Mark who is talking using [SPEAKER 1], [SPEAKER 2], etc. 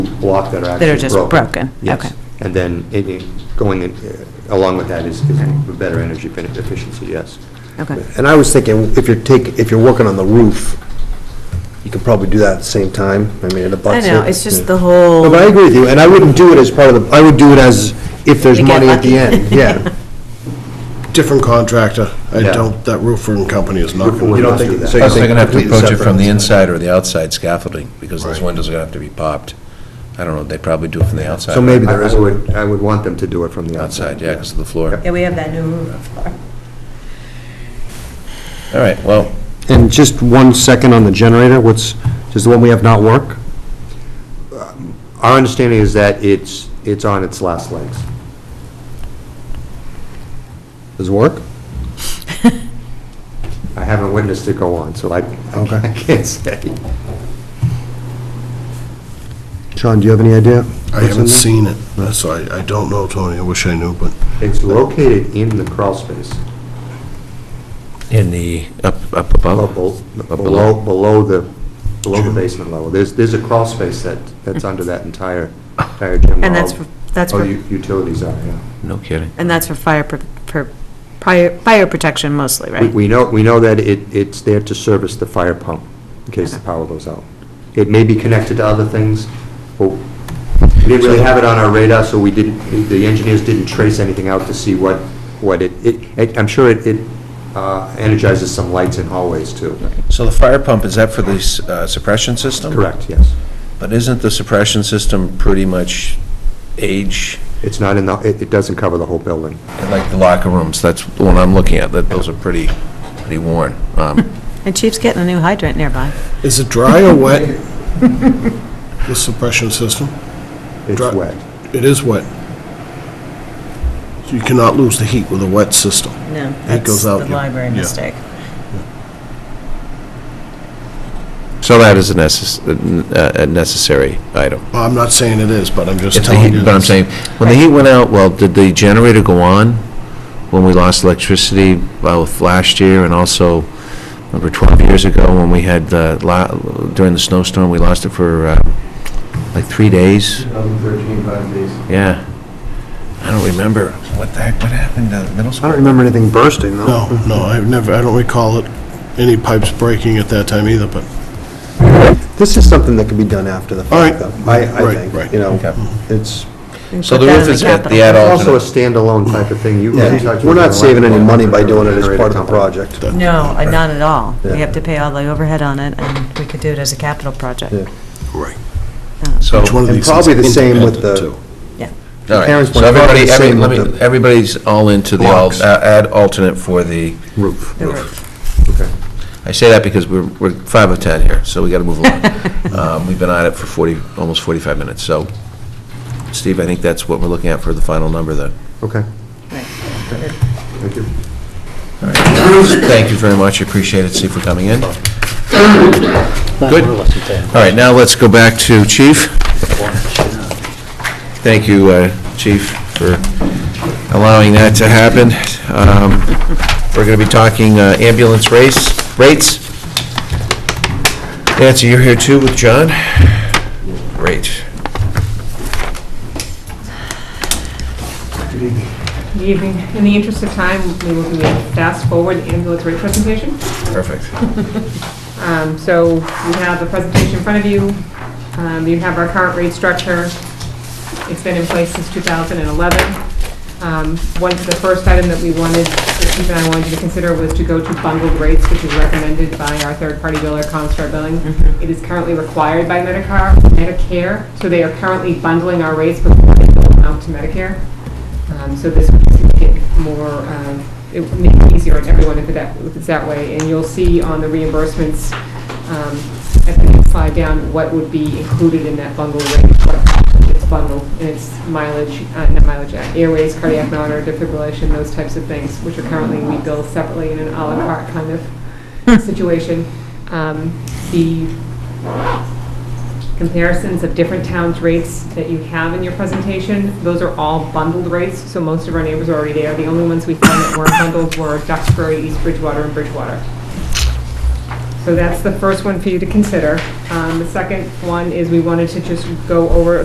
[SPEAKER 1] block that are
[SPEAKER 2] That are
[SPEAKER 1] actually
[SPEAKER 2] just
[SPEAKER 1] broken.
[SPEAKER 2] broken,
[SPEAKER 1] Yes.
[SPEAKER 2] okay.
[SPEAKER 1] And then it- it- going in- uh, along with that is is better energy ben- efficiency, yes.
[SPEAKER 2] Okay.
[SPEAKER 3] And I was thinking, if you're take, if you're working on the roof, you could probably do that at the same time, I mean, it
[SPEAKER 2] I
[SPEAKER 3] abuts it.
[SPEAKER 2] know, it's just the
[SPEAKER 3] Yeah.
[SPEAKER 2] whole.
[SPEAKER 3] No, but I agree with you, and I wouldn't do it as part of the, I would do it as if there's
[SPEAKER 2] You get
[SPEAKER 3] money at the
[SPEAKER 2] lucky.
[SPEAKER 3] end, yeah.
[SPEAKER 4] Different contractor. I
[SPEAKER 1] Yeah.
[SPEAKER 4] don't, that roofing company is not
[SPEAKER 1] Roofer
[SPEAKER 4] going
[SPEAKER 1] would
[SPEAKER 4] to.
[SPEAKER 1] not do that.
[SPEAKER 3] so you
[SPEAKER 5] Plus, they're
[SPEAKER 3] think
[SPEAKER 5] going to have to
[SPEAKER 3] completely
[SPEAKER 5] approach it from the
[SPEAKER 3] separate.
[SPEAKER 5] inside or the outside scaffolding, because those
[SPEAKER 4] Right.
[SPEAKER 5] windows are going to have to be popped. I don't know, they probably do it from the outside.
[SPEAKER 3] So maybe
[SPEAKER 1] I
[SPEAKER 3] there
[SPEAKER 1] I
[SPEAKER 3] is a
[SPEAKER 1] would, I would want them to do it from the outside.
[SPEAKER 5] Outside, yeah, because of the floor.
[SPEAKER 2] Yeah, we have that new roof.
[SPEAKER 5] All right, well,
[SPEAKER 3] And just one second on the generator, what's, does the one we have not work?
[SPEAKER 1] Our understanding is that it's, it's on its last legs.
[SPEAKER 3] Does it work?
[SPEAKER 1] I haven't witnessed it go on, so I,
[SPEAKER 3] Okay.
[SPEAKER 1] I can't say.
[SPEAKER 3] Sean, do you have any idea?
[SPEAKER 4] I haven't seen it, so I, I don't know, Tony. I wish I knew, but
[SPEAKER 1] It's located in the crawl space,
[SPEAKER 5] in the, up up above?
[SPEAKER 1] below,
[SPEAKER 5] Up
[SPEAKER 1] below below the, below the basement level. There's, there's a crawl space that, that's under that entire, entire gym. where
[SPEAKER 2] And that's
[SPEAKER 1] all-
[SPEAKER 2] for- that's
[SPEAKER 1] all
[SPEAKER 2] for-
[SPEAKER 1] u- Utilities are, yeah.
[SPEAKER 5] No kidding.
[SPEAKER 2] And that's for fire, pr- pr- prior- fire protection mostly,
[SPEAKER 1] We-
[SPEAKER 2] right?
[SPEAKER 1] We know, we know that it, it's there to service the fire pump in case the
[SPEAKER 2] Okay.
[SPEAKER 1] power goes out. It may be connected to other things, but we didn't really have it on our radar, so we didn't, the engineers didn't trace anything out to see what, what it, it- it, I'm sure it, it uh, energizes some lights in hallways too.
[SPEAKER 5] So the fire pump, is that for the s- uh, suppression system?
[SPEAKER 1] Correct, yes.
[SPEAKER 5] But isn't the suppression system pretty much age,
[SPEAKER 1] It's not in the, it, it doesn't cover the whole building.
[SPEAKER 5] like the locker rooms? That's the one I'm looking at, that those are pretty, pretty worn. Um,
[SPEAKER 2] And Chief's getting a new hydrant nearby.
[SPEAKER 4] is it dry or wet? The suppression system?
[SPEAKER 1] It's
[SPEAKER 4] Dri-
[SPEAKER 1] wet.
[SPEAKER 4] It is wet. You cannot lose the heat with a wet system.
[SPEAKER 2] No,
[SPEAKER 4] goes out, yeah. Yeah.
[SPEAKER 5] So that is a necess- uh, a- a necessary item.
[SPEAKER 4] Well, I'm not saying it is, but I'm just
[SPEAKER 5] If the
[SPEAKER 4] telling
[SPEAKER 5] heat,
[SPEAKER 4] you.
[SPEAKER 5] but I'm saying, when the heat went out, well, did the generator go on when we lost electricity both last year and also, remember 12 years ago when we had, the la- during the snowstorm, we lost it for uh, like three days?
[SPEAKER 1] 2013, five days.
[SPEAKER 5] Yeah. I don't remember. What the heck, what happened to middle
[SPEAKER 3] I
[SPEAKER 5] school?
[SPEAKER 3] don't remember anything bursting, though.
[SPEAKER 4] No, no, I've never, I don't recall it, any pipes breaking at that time either, but
[SPEAKER 3] This is something that could be done after the fact,
[SPEAKER 4] All right.
[SPEAKER 3] though, I, I
[SPEAKER 4] Right,
[SPEAKER 3] think,
[SPEAKER 4] right.
[SPEAKER 3] you know,
[SPEAKER 5] Okay.
[SPEAKER 3] it's,
[SPEAKER 5] So the roof is at the
[SPEAKER 1] It's
[SPEAKER 5] add-on.
[SPEAKER 1] also a standalone type of thing. You really touch
[SPEAKER 3] we're
[SPEAKER 1] it
[SPEAKER 3] not
[SPEAKER 1] with
[SPEAKER 3] saving any
[SPEAKER 1] electrical
[SPEAKER 3] money by doing it as
[SPEAKER 1] generator
[SPEAKER 3] part of the
[SPEAKER 1] company.
[SPEAKER 3] project.
[SPEAKER 4] that-
[SPEAKER 2] No, uh, not at all. We
[SPEAKER 3] Yeah.
[SPEAKER 2] have to pay all the overhead on it, and we could do it as a capital project.
[SPEAKER 3] Yeah.
[SPEAKER 4] Right.
[SPEAKER 5] So,
[SPEAKER 4] Each one
[SPEAKER 5] all
[SPEAKER 4] of
[SPEAKER 3] And
[SPEAKER 4] these is
[SPEAKER 3] probably the same with
[SPEAKER 4] independent,
[SPEAKER 3] the-
[SPEAKER 4] too.
[SPEAKER 5] right.
[SPEAKER 3] parents
[SPEAKER 5] So
[SPEAKER 3] went about
[SPEAKER 5] everybody,
[SPEAKER 3] the
[SPEAKER 5] every-
[SPEAKER 3] same
[SPEAKER 5] let
[SPEAKER 3] with
[SPEAKER 5] me-
[SPEAKER 3] the
[SPEAKER 5] everybody's all into the al-
[SPEAKER 3] blocks.
[SPEAKER 5] uh, add alternate for the roof.
[SPEAKER 2] The roof.
[SPEAKER 1] Okay.
[SPEAKER 5] I say that because we're, we're five of 10 here, so we got to move along. Um, We've been at it for 40, almost 45 minutes, so, Steve, I think that's what we're looking at for the final number, then.
[SPEAKER 1] Okay,
[SPEAKER 2] Right.
[SPEAKER 1] thank you.
[SPEAKER 5] Thank you very much, appreciate it, Steve, for coming in. Good. All right, now let's go back to Chief. Thank you, uh, Chief, for allowing that to happen. Um, We're going to be talking uh, ambulance race, rates. Nancy, you're here too with John? Great.
[SPEAKER 6] Good evening. In the interest of time, we will do a fast-forward ambulance rate presentation.
[SPEAKER 5] Perfect.
[SPEAKER 6] Um, So you have the presentation in front of you. Um, You have our current rate structure. It's been in place since 2011. Um, One, the first item that we wanted, that Chief and I wanted you to consider was to go to bundled rates, which is recommended by our third-party biller, Comstar Billing. It is currently required by Medicare, Medicare, so they are currently bundling our rates before they go out to Medicare. Um, So this would make more, um, it would make it easier on everyone if it that- if it's that way. And you'll see on the reimbursements, um, at the next slide down, what would be included in that bundle rate, what it's bundled, and it's mileage, uh, not mileage, uh, airways, cardiac monitor, defibrillation, those types of things, which are currently, we bill separately in an à la carte kind of situation. Um, The comparisons of different towns' rates that you have in your presentation. Those are all bundled rates, so most of our neighbors are already there. The only ones we found that weren't bundled were Duxbury, East Bridgewater, and Bridgewater. So that's the first one for you to consider. Um, The second one is we wanted to just go over